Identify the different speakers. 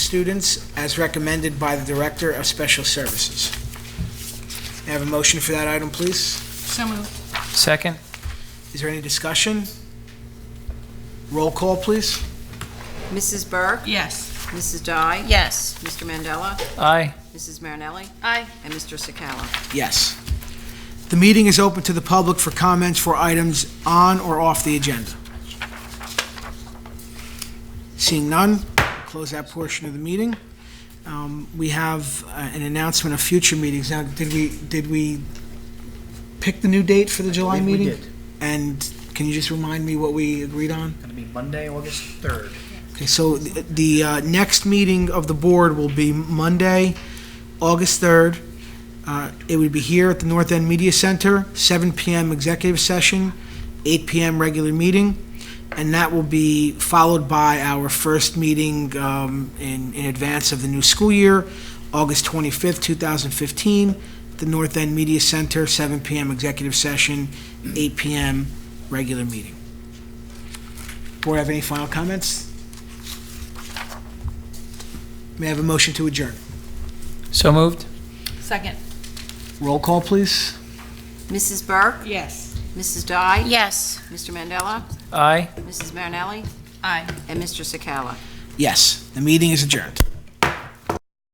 Speaker 1: students as recommended by the Director of Special Services. May I have a motion for that item, please?
Speaker 2: So moved.
Speaker 3: Second?
Speaker 1: Is there any discussion? Roll call, please.
Speaker 4: Mrs. Burke?
Speaker 2: Yes.
Speaker 4: Mrs. Dye?
Speaker 2: Yes.
Speaker 4: Mr. Mandela?
Speaker 3: Aye.
Speaker 4: Mrs. Marinelli?
Speaker 2: Aye.
Speaker 4: And Mr. Sakala?
Speaker 1: Yes. The meeting is open to the public for comments for items on or off the agenda. Seeing none, close that portion of the meeting. Um, We have uh, an announcement of future meetings. Now, did we, did we pick the new date for the July
Speaker 5: I believe we
Speaker 1: meeting?
Speaker 5: did.
Speaker 1: And can you just remind me what we agreed on?
Speaker 5: Going to be Monday, August 3rd.
Speaker 1: Okay, so th- the uh, next meeting of the board will be Monday, August 3rd. Uh, It would be here at the North End Media Center, 7 PM executive session, 8 PM regular meeting, and that will be followed by our first meeting um, in in advance of the new school year, August 25th, 2015, at the North End Media Center, 7 PM executive session, 8 PM regular meeting. Board have any final comments? May I have a motion to adjourn?
Speaker 3: So moved?
Speaker 2: Second.
Speaker 1: Roll call, please.
Speaker 4: Mrs. Burke?
Speaker 2: Yes.
Speaker 4: Mrs. Dye?
Speaker 2: Yes.
Speaker 4: Mr. Mandela?
Speaker 3: Aye.
Speaker 4: Mrs. Marinelli?
Speaker 2: Aye.
Speaker 4: And Mr. Sakala?
Speaker 1: Yes, the meeting is adjourned.